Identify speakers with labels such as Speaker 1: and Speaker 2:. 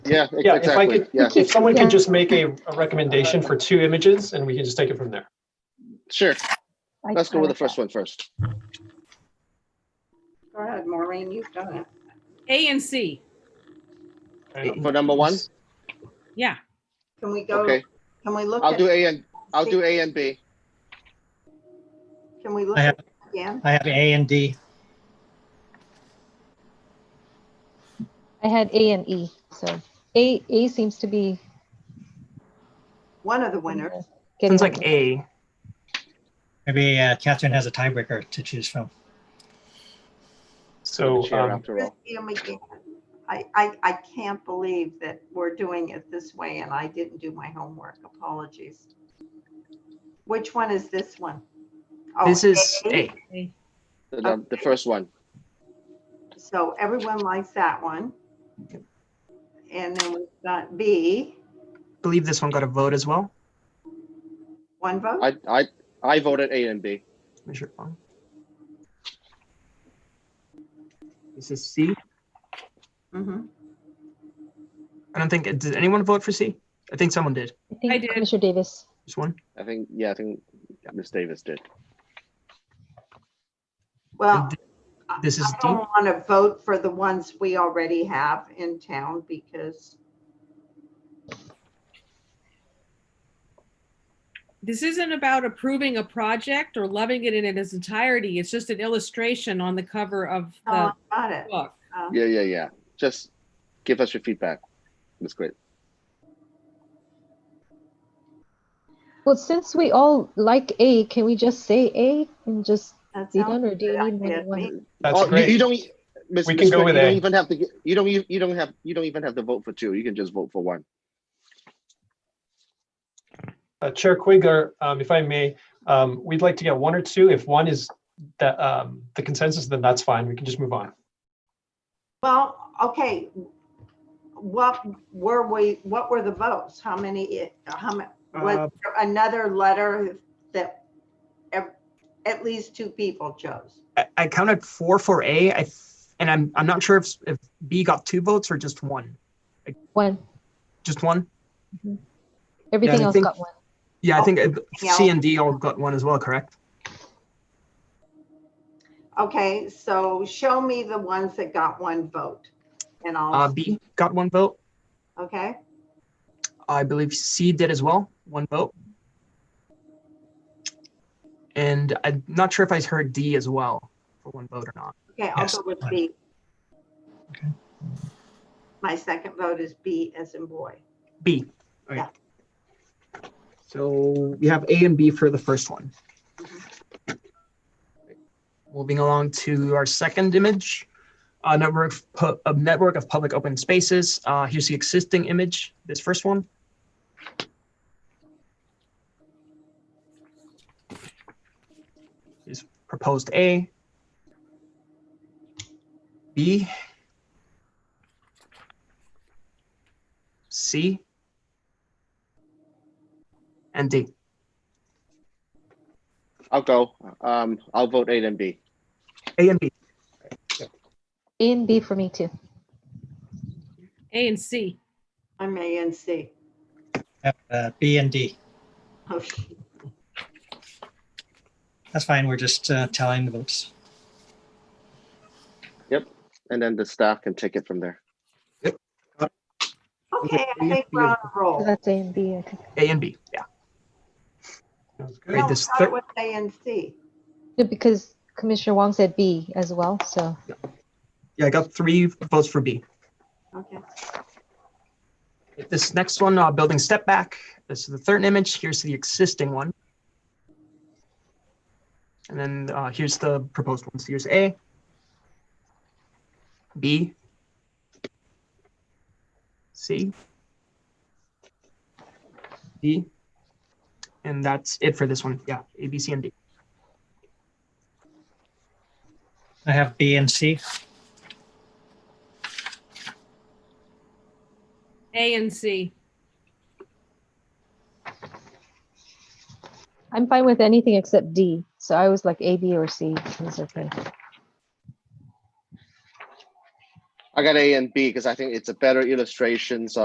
Speaker 1: Yeah,
Speaker 2: Yeah, if I
Speaker 1: exactly.
Speaker 2: could,
Speaker 1: Yeah,
Speaker 2: if someone
Speaker 3: Yeah.
Speaker 2: could just make a, a recommendation for two images and we can just take it from there.
Speaker 1: sure.
Speaker 3: I-
Speaker 1: Let's go
Speaker 3: I
Speaker 1: with the
Speaker 3: like
Speaker 1: first
Speaker 3: that.
Speaker 1: one first.
Speaker 4: Go ahead, Maureen, you've done it.
Speaker 5: A and C,
Speaker 2: And-
Speaker 1: For number one?
Speaker 5: yeah.
Speaker 4: Can we go,
Speaker 1: Okay,
Speaker 4: can we look
Speaker 1: I'll do
Speaker 4: at,
Speaker 1: A and, I'll do A and B.
Speaker 4: can we look
Speaker 6: I
Speaker 4: at it again?
Speaker 6: I have A and D.
Speaker 3: I had A and E, so A, A seems to be.
Speaker 4: One of the winners.
Speaker 3: getting
Speaker 7: Sounds like
Speaker 3: it.
Speaker 7: A.
Speaker 6: Maybe uh, Catherine has a tiebreaker to choose from.
Speaker 2: So,
Speaker 1: Chair
Speaker 2: um,
Speaker 1: after all.
Speaker 4: Christie and McGann. I, I, I can't believe that we're doing it this way and I didn't do my homework. Apologies. Which one is this one? Oh,
Speaker 7: This is
Speaker 4: A.
Speaker 7: A.
Speaker 1: The, num- the first one.
Speaker 4: So everyone likes that one. And then we've got B,
Speaker 7: Believe this one got a vote as well.
Speaker 4: one vote.
Speaker 1: I, I, I voted A and B.
Speaker 7: Where's your phone? This is C.
Speaker 4: Mhm.
Speaker 7: I don't think, did anyone vote for C? I think someone did.
Speaker 3: I think
Speaker 5: I did.
Speaker 3: Commissioner Davis.
Speaker 7: Just one.
Speaker 1: I think, yeah, I think Ms. Davis did.
Speaker 4: Well.
Speaker 7: This is
Speaker 4: Oh. I don't want to vote for the ones we already have in town because
Speaker 5: This isn't about approving a project or loving it in its entirety. It's just an illustration on the cover of
Speaker 4: no one
Speaker 5: the
Speaker 4: Oh, got it.
Speaker 5: book.
Speaker 4: Uh,
Speaker 1: Yeah, yeah, yeah. Just give us your feedback. That's great.
Speaker 3: Well, since we all like A, can we just say A and just
Speaker 4: that
Speaker 3: be
Speaker 4: sounds
Speaker 3: done, or do
Speaker 4: good.
Speaker 3: you
Speaker 4: I
Speaker 3: need more
Speaker 4: did.
Speaker 3: than one?
Speaker 2: that's
Speaker 1: Oh, you- You
Speaker 2: great.
Speaker 1: don't, Ms.
Speaker 2: We
Speaker 1: Ms.
Speaker 2: can go
Speaker 1: Grant,
Speaker 2: with
Speaker 1: you don't
Speaker 2: A.
Speaker 1: even have to, get- you don't, you you don't have, you don't even have to vote for two. You can just vote for one.
Speaker 2: Uh, Chair Quigger, um, if I may, um, we'd like to get one or two. If one is the, um, the consensus, then that's fine. We can just move on.
Speaker 4: Well, okay. What were we, what were the votes? How many, how many,
Speaker 6: Uh,
Speaker 4: was there another letter that ev- at least two people chose?
Speaker 7: I, I counted four for A, I, th- and I'm, I'm not sure if, if B got two votes or just one.
Speaker 3: One.
Speaker 7: Just one?
Speaker 3: Everything
Speaker 7: I
Speaker 3: else
Speaker 7: think-
Speaker 3: got one.
Speaker 7: Yeah, I think uh,
Speaker 4: Oh. yeah.
Speaker 7: C and D all got one as well, correct?
Speaker 4: Okay, so show me the ones that got one vote and
Speaker 7: Uh,
Speaker 4: I'll,
Speaker 7: B got one vote.
Speaker 4: okay?
Speaker 7: I believe C did as well, one vote. And I'm not sure if I heard D as well for one vote or not.
Speaker 4: Okay, I'll
Speaker 6: Yes,
Speaker 4: go with
Speaker 6: fine.
Speaker 4: B.
Speaker 6: Okay.
Speaker 4: My second vote is B as in boy.
Speaker 7: B.
Speaker 4: Yeah.
Speaker 7: So we have A and B for the first one. Moving along to our second image, a network of, pu- a network of public open spaces. Uh, here's the existing image, this first one. Is proposed A. B. C and D.
Speaker 1: I'll go. Um, I'll vote A and B.
Speaker 7: A and B.
Speaker 3: A and B for me too.
Speaker 5: A and C.
Speaker 4: I'm A and C.
Speaker 6: have, uh, B and D.
Speaker 4: Oh,
Speaker 6: That's fine. We're just uh, telling the votes.
Speaker 1: And then the staff can take it from there.
Speaker 4: Okay, I think we're on a
Speaker 3: So
Speaker 4: roll.
Speaker 3: that's A and B. I think.
Speaker 7: A and B. Yeah.
Speaker 2: Sounds good.
Speaker 7: Great.
Speaker 4: No,
Speaker 7: this
Speaker 4: start
Speaker 7: third-
Speaker 4: with A and C.
Speaker 3: Yeah, Because Commissioner Wong said B as well, so
Speaker 7: Yeah, I got three votes for B.
Speaker 4: Okay,
Speaker 7: This next one, uh, building step back. This is the third image. Here's the existing one. And then uh, here's the proposed one. So here's A, B, C, D, and that's it for this one. Yeah, A, B, C, and D.
Speaker 6: I have B and C.
Speaker 5: A and C.
Speaker 3: I'm fine with anything except D. So I was like A, B, or C. It's okay.
Speaker 1: I got A and B because I think it's a better illustrations